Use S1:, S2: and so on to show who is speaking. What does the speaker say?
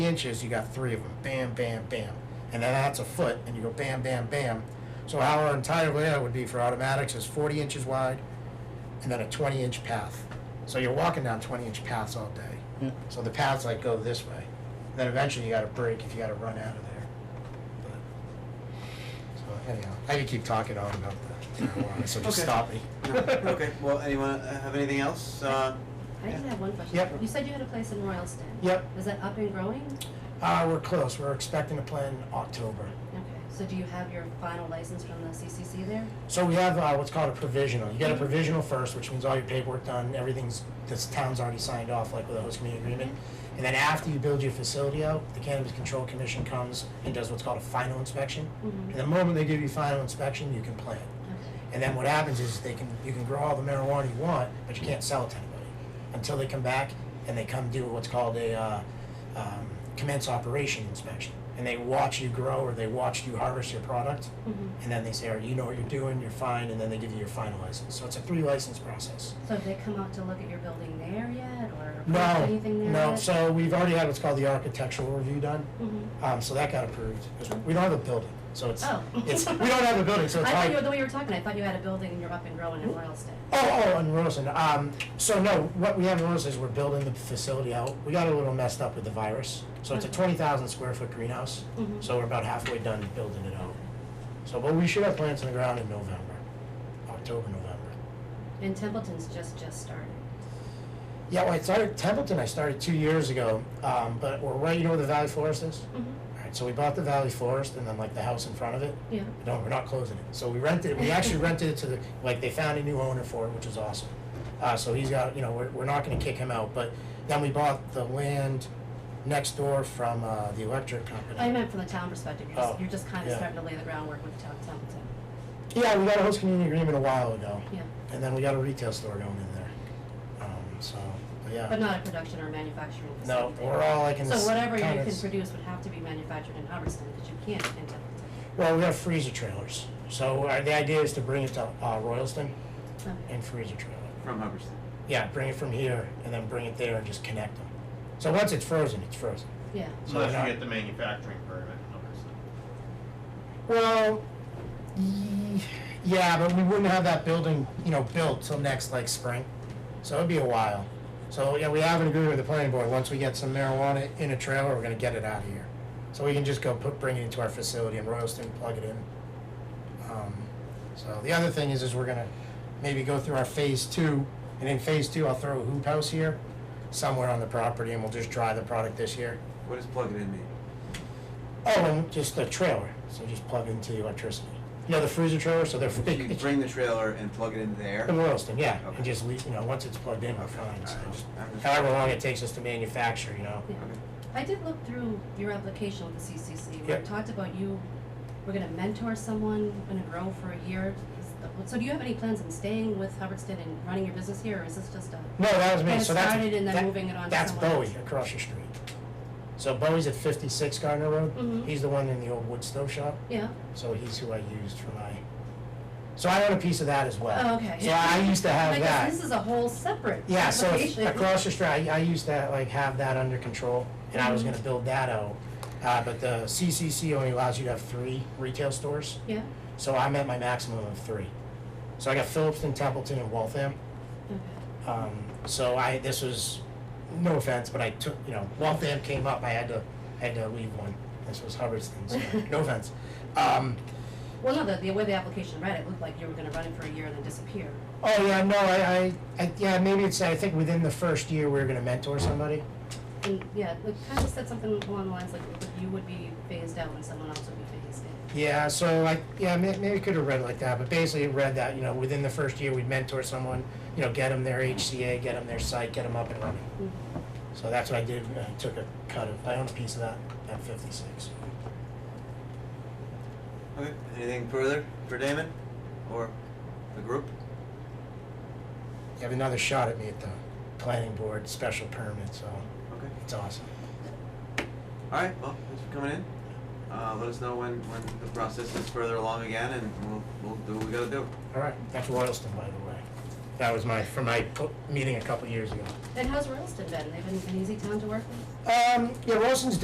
S1: inches, you got three of them. Bam, bam, bam. And then that's a foot, and you go bam, bam, bam. So how our entire layout would be for automatics is 40 inches wide, and then a 20 inch path. So you're walking down 20 inch paths all day. So the paths like go this way. Then eventually you got to break if you got to run out of there. But, so anyhow, I could keep talking on about the marijuana, so just
S2: Okay.
S1: stop me.
S2: Okay, well, anyone uh, have anything else? Uh,
S3: I just have one question.
S1: Yep.
S3: You said you had a place in Royalston.
S1: Yep.
S3: Is that up and growing?
S1: Uh, we're close. We're expecting to plan in October.
S3: Okay, so do you have your final license from the CCC there?
S1: So we have uh, what's called a provisional. You get a provisional first, which means all your paperwork done, everything's, this town's already signed off, like with a host community agreement. And then after you build your facility out, the Cannabis Control Commission comes and does what's called a final inspection.
S3: Mhm.
S1: And the moment they give you final inspection, you can plant.
S3: Okay.
S1: And then what happens is they can, you can grow all the marijuana you want, but you can't sell it to anybody until they come back and they come do what's called a uh, um, commence operation inspection. And they watch you grow or they watch you harvest your product.
S3: Mhm.
S1: And then they say, "All right, you know what you're doing, you're fine, and then they give you your final license. So it's a three license process.
S3: So have they come out to look at your building there yet, or
S1: No,
S3: anything there
S1: no.
S3: yet?
S1: So we've already had what's called the architectural review done.
S3: Mhm.
S1: Um, so that got approved. 'Cause We don't have a building, so it's,
S3: Oh.
S1: it's we don't have a building, so
S3: I
S1: it's
S3: thought
S1: hard.
S3: you, the way you were talking, I thought you had a building and you're up and growing in Royalston.
S1: Oh, oh, and Rosen. Um, so no, what we have in Rosen is we're building the facility out. We got a little messed up with the virus, so it's a
S3: Mhm.
S1: twenty thousand square foot greenhouse.
S3: Mhm.
S1: So we're about halfway done building it out. So, but we should have plants in the ground in November, October, November.
S3: And Templeton's just, just started.
S1: Yeah, well, I started Templeton. I started two years ago, um, but we're right. You know where the Valley Forest is.
S3: Mhm.
S1: All right, so we bought the Valley Forest and then like the house in front of it.
S3: Yeah.
S1: No, we're not closing it. So we rented. We actually rented it to the like they found a new owner for it, which is awesome. Uh, so he's got you know we're, we're not going to kick him out, but then we bought the land next door from uh, the electric company.
S3: I meant from the town perspective, you're just,
S1: Oh,
S3: you're just kind of
S1: yeah.
S3: starting to lay the groundwork with Tem- Templeton.
S1: yeah, we got a host community agreement a while ago,
S3: Yeah,
S1: and then we got a retail store going in there. Um, so but yeah,
S3: but not a production or manufacturing
S1: no,
S3: facility.
S1: we're all like in
S3: So
S1: this
S3: whatever you
S1: kind
S3: can
S1: of-
S3: produce would have to be manufactured in Hubbardston, because you can't in Templeton.
S1: Well, we have freezer trailers. So uh, the idea is to bring it to uh, Royalston
S3: Okay.
S1: and freezer trailer.
S2: from Hubbardston.
S1: Yeah, bring it from here and then bring it there and just connect them. So once it's frozen, it's frozen.
S3: Yeah,
S1: So
S4: Unless
S1: not-
S4: you get the manufacturing permit and all this stuff.
S1: Well, y- yeah, but we wouldn't have that building, you know, built till next like spring. So it'd be a while. So yeah, we have an agreement with the planning board. Once we get some marijuana in a trailer, we're gonna get it out of here. So we can just go put, bring it into our facility in Royalston, plug it in. Um, so the other thing is, is we're gonna maybe go through our phase two, and in phase two, I'll throw a hoop house here, somewhere on the property, and we'll just dry the product this year.
S2: What does plug it in mean?
S1: Oh, and just a trailer, so just plug into the electricity. You know, the freezer trailer, so they're.
S2: You bring the trailer and plug it in there?
S1: In Royalston, yeah,
S2: Okay.
S1: and just, leave- you know, once it's plugged in, we're fine, so
S2: Alright,
S1: just-
S2: I'm just-
S1: however long it takes us to manufacture, you know?
S3: yeah.
S2: Okay.
S3: I did look through your application with the CCC, where
S1: Yeah.
S3: it talked about you were gonna mentor someone in a grow for a year. Is- So do you have any plans on staying with Hubbardston and running your business here, or is this just a?
S1: No, that was me,
S3: Get it
S1: so that's.
S3: started and then
S1: that-
S3: moving it on to
S1: That's
S3: someone
S1: Bowie
S3: else.
S1: across the street. So Bowie's at fifty-six Gardner Road,
S3: Mhm.
S1: he's the one in the old wood stove shop,
S3: Yeah,
S1: so he's who I used for my, so I own a piece of that as well.
S3: oh, okay.
S1: So I used to have
S3: I
S1: that.
S3: guess This is a whole separate
S1: Yeah, so if-
S3: application.
S1: across the street, I, I used to like have that under control, and I was
S3: Mhm.
S1: gonna build that out. Uh, but the CCC only allows you to have three retail stores,
S3: Yeah,
S1: so I'm at my maximum of three. So I got Phillipston, Templeton, and Waltham.
S3: okay,
S1: Um, so I, this was, no offense, but I took, you know, Waltham came up, I had to, I had to leave one. This was Hubbardston, so, no offense. Um,
S3: well, no, the, the way the application read, it looked like you were gonna run it for a year and then disappear.
S1: oh yeah, no, I, I, I, yeah, maybe it's, I think within the first year, we were gonna mentor somebody.
S3: And, yeah, it kind of said something along the lines like you would be phased out and someone else would be phased in.
S1: Yeah, so like, yeah, may- maybe could have read it like that, but basically it read that, you know, within the first year, we'd mentor someone, you know, get them their HCA, get them their site, get them up and running.
S3: Mhm.
S1: So that's what I did, I took a cut of, I own a piece of that at fifty-six.
S2: Okay, anything further for Damon or the group?
S1: You have another shot at me at the planning board special permit, so
S2: Okay,
S1: it's awesome.
S2: all right, well, thanks for coming in. Uh, let us know when, when the process is further along again and we'll, we'll do what we gotta do.
S1: All right, that's Royalston, by the way. That was my, from my po- meeting a couple years ago.
S3: And how's Royalston been? They've been an easy town to work with?
S1: Um, yeah, Royalston's